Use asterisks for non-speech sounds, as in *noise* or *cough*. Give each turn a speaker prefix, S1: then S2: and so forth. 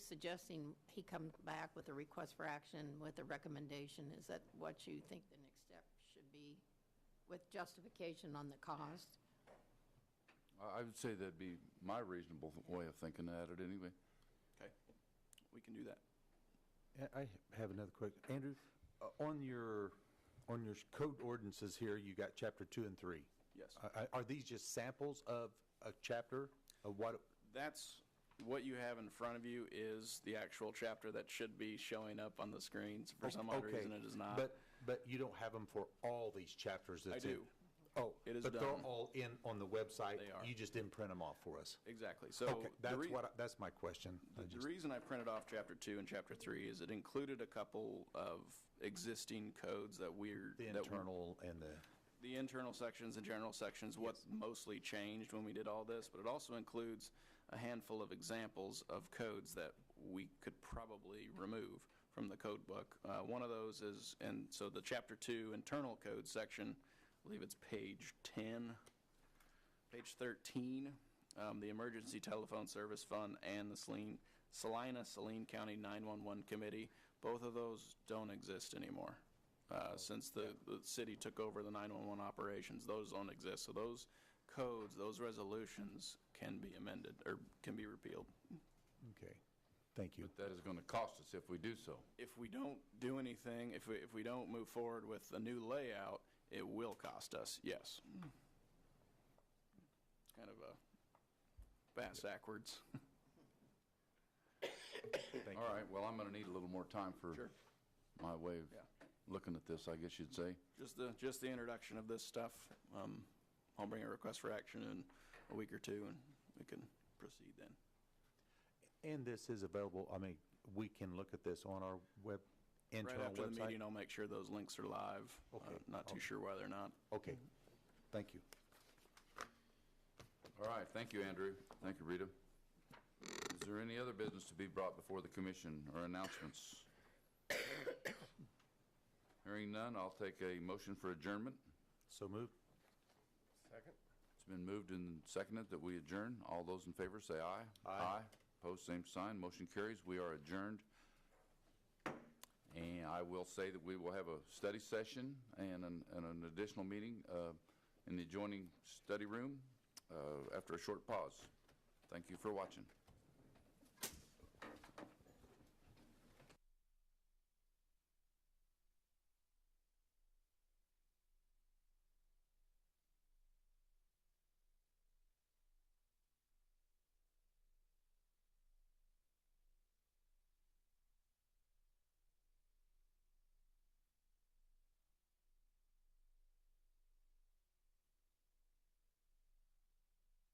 S1: suggesting he come back with a request for action with a recommendation. Is that what you think the next step should be with justification on the cost?
S2: I I would say that'd be my reasonable way of thinking at it anyway.
S3: Okay, we can do that.
S4: Yeah, I have another question. Andrew, uh, on your, on your code ordinances here, you got chapter two and three.
S3: Yes.
S4: Uh, uh, Are these just samples of a chapter of what,
S3: That's, what you have in front of you is the actual chapter that should be showing up on the screens. For some odd
S4: Okay,
S3: reason, it is not.
S4: But, but you don't have them for all these chapters that's in?
S3: do.
S4: Oh.
S3: It is
S4: But
S3: done.
S4: they're all in, on the website?
S3: They are.
S4: You just didn't print them off for us?
S3: Exactly, so.
S4: Okay,
S3: the
S4: that's
S3: rea-
S4: what, I- that's my question. I
S3: The
S4: just-
S3: reason I printed off chapter two and chapter three is it included a couple of existing codes that we're.
S4: The
S3: that we-
S4: internal and the,
S3: The internal sections and general sections, what mostly changed when we did all this, but it also includes a handful of examples of codes that we could probably remove from the code book. Uh, One of those is, and so the chapter two internal code section, I believe it's page 10, page 13, um, the Emergency Telephone Service Fund and the Saline, Salina, Saline County 911 Committee, both of those don't exist anymore. Uh, Since the, the city took over the 911 operations, those don't exist. So those codes, those resolutions can be amended or can be repealed.
S4: okay, thank you.
S2: But that is going to cost us if we do so.
S3: If we don't do anything, if we, if we don't move forward with a new layout, it will cost us, yes. It's kind of a bass backwards. *laughs*
S4: Thank
S2: All
S4: you.
S2: right, well, I'm going to need a little more time
S3: Sure.
S2: for my way of
S3: Yeah.
S2: looking at this, I guess you'd say.
S3: Just the, just the introduction of this stuff. Um, I'll bring a request for action in a week or two, and we can proceed then.
S4: And this is available, I mean, we can look at this on our web,
S3: Right
S4: internal
S3: after the meeting,
S4: website?
S3: I'll make sure those links are live.
S4: Okay.
S3: Uh, Not too
S4: Okay.
S3: sure why they're not.
S4: Okay, thank you.
S2: All right, thank you, Andrew. Thank you, Rita. Is there any other business to be brought before the commission or announcements? Hearing none, I'll take a motion for adjournment.
S4: So moved.
S2: It's been moved and seconded that we adjourn. All those in favor say aye. Aye. Opposed, same sign. Motion carries. We are adjourned. And I will say that we will have a study session and an, and an additional meeting uh, in the adjoining study room uh, after a short pause. Thank you for watching.